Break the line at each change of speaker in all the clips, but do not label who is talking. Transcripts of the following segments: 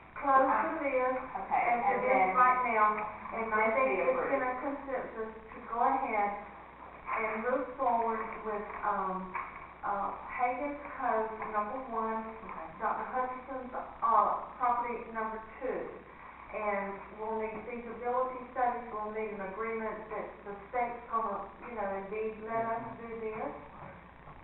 close to this, Uh, and
Okay,
to
and
this
then,
right now, and I
must be
think it's
approved.
been a consensus to go ahead and move forward with, um, uh, Hagan's Cove number one,
okay,
Dr. Hutchinson's, uh, property number two. And we'll need feasibility studies, we'll need an agreement that the state's gonna, you know, indeed let us do this,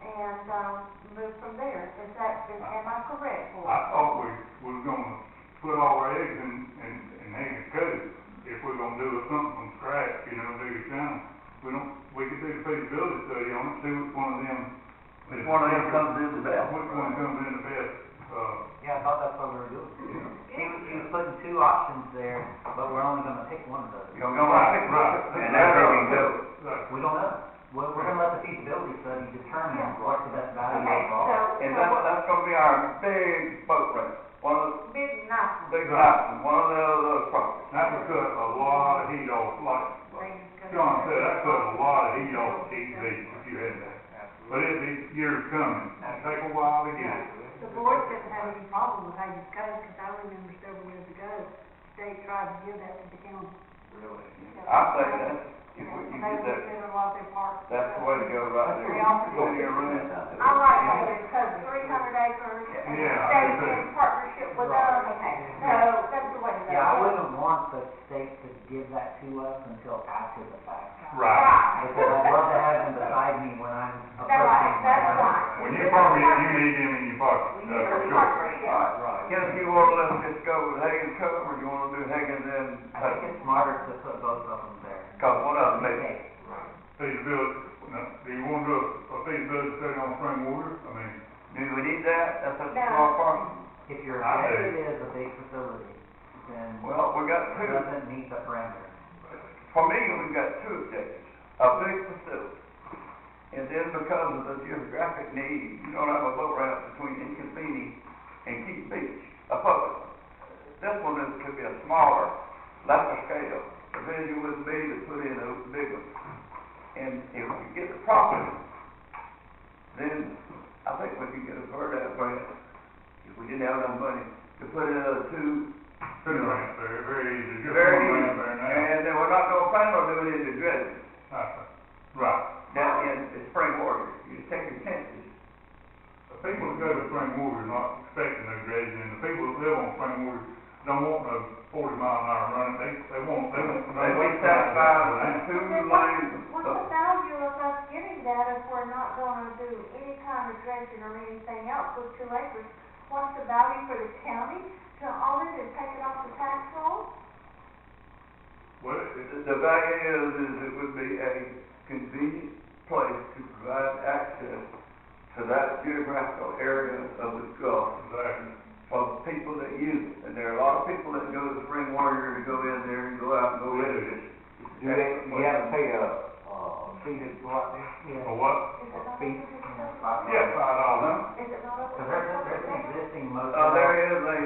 and, um, move from there. Is that, is, am I correct? Boyd?
I thought we was gonna put all our eggs in, in, in Hagan Cove, if we're gonna do something from scratch, you know, do it down. We don't, we could do the feasibility study on it, see which one of them.
Which one of them comes in the best?
Which one comes in the best, uh,
Yeah, I thought that's what we were doing.
you know.
He was, he was putting two options there, but we're only gonna pick one of those.
You're gonna have it right, and that's how we go.
Right.
We don't know. We're, we're gonna let the feasibility study determine what the best value
okay,
is
so,
all.
And
so
that's,
what,
that's gonna be our big boat race, one of
Big night.
the big houses, one of the other properties.
That would cut a lot of heat off, like John said, that cut a lot of heat off TV if you had that. But it, it, years coming, it'll take a while to get it.
The board doesn't have any problem with Hagen's Cove, because I remember several years ago, the state tried to give that to the county.
Really?
I think that's, if we can get that,
They were lot their parks.
that's the way to go right there.
They offered
Go in your room.
I like Hagan's Cove, three hundred acres, and the
Yeah, I
state's
agree.
in partnership with us,
okay,
so that's the way to go.
Yeah, I wouldn't want the state to give that to us until after the fact.
Right.
Because I'd love to have them beside me when I'm
That's right,
approaching.
that's
my-
right.
When you farm it, you uh, need him in your pocket,
we need
that's for
a
sure.
partnership.
Alright,
Right.
can if you want, let's just go with Hagan Cove, or you wanna do Hagan then?
I think it's smarter to put both of them there.
Cause one of them may,
Okay.
Feasibility, now, do you want to do a a feasibility study on spring water? I mean,
do we need that? That's a
No.
small parking.
If your
I do.
objective is a big facility, then it
Well, we got two.
doesn't meet the parameters.
For me, we've got two objectives, a big facility, and then because of the geographic need, you don't have a boat route between Inconvenience and Key Beach, a public. one. This one is, could be a smaller, lesser scale, the vision would be to put in a big one. And if we get the property, then I think we could get a bird out grant, if we didn't have enough money, to put in another two.
two ramps there, very easy, just one
Very easy,
ramp there now.
and then we're not gonna plan on doing it in dredging.
Right.
down in the spring water, you just take your chances.
The people that go to spring water are not expecting no dredging, and the people that live on spring water don't want no forty mile an hour running, they, they want, they want.
They be satisfied with two lanes
What's
of,
the value of us getting that if we're not gonna do any kind of dredging or anything else with two acres? What's the value for the county to own it and take it off the tax roll?
Well, it-
the the value is, is it would be a convenient place to provide access to that geographical area of the Gulf
exactly,
for people that use it. And there are a lot of people that go to spring water to go in there and go out and go in Oh, it.
Do they, you have to pay a, uh, fee to go out there?
for what?
Is it not?
Feet, you know, five.
Yeah, five dollars.
Is it not? up to
Cause there's, there's an
us?
existing
Uh,
motel.
there is a,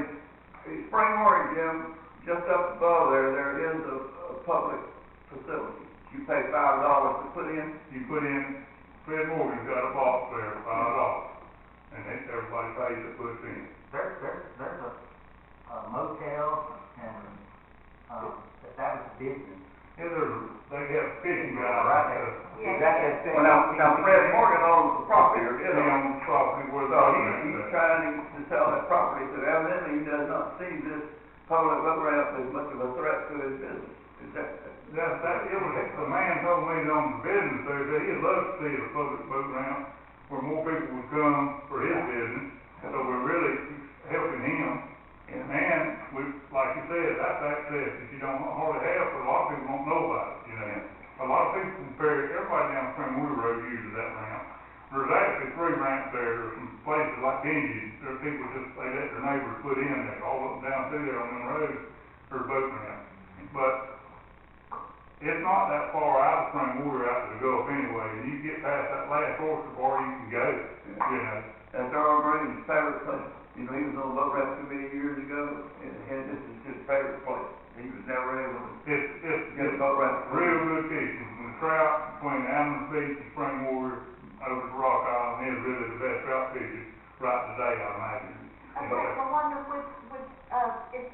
a spring water gym, just up above there, there is a, a public facility. You pay five dollars to put in,
You put in, Fred Morgan's got a box there, five dollars, and they, everybody pays to put in.
There, there's, there's a a motel and, um, that that was business.
Yeah, there's, they have fishing guys,
Right
uh,
there.
Is that that same?
Well, now, now Fred Morgan owns the property, or
they
is on,
own property where
so
the
he,
other
he's
end is.
trying to sell that property, so evidently he does not see this public boat ramp as much of a threat to his business. Is that,
That, that, it was, the man told me that on the business there, that he'd love to see a public boat ramp where more people would come for his business, so we're really helping him.
yeah.
And we, like you said, that's access that you don't hardly have, but a lot of people don't know about it, you know? A lot of people compare, everybody down Spring Wheel Road uses that ramp. There's actually three ramps there, there's some places like Indian, there are people just, they let their neighbors put in there, all up and down through there on them roads, there's boat ramps. But it's not that far out of Spring Wheel out to the Gulf anyway, and you get past that last oyster bar, you can go, you know?
That's Earl Green's favorite place. You know, he was on the boat ramp committee years ago, and, and this is his favorite place. He was never able to
It's, it's,
get
it's
a boat ramp.
real good fishing, from the trout between Adams Beach and Spring Water over to Rock Island, is really the best trout fishing. uh,
uh,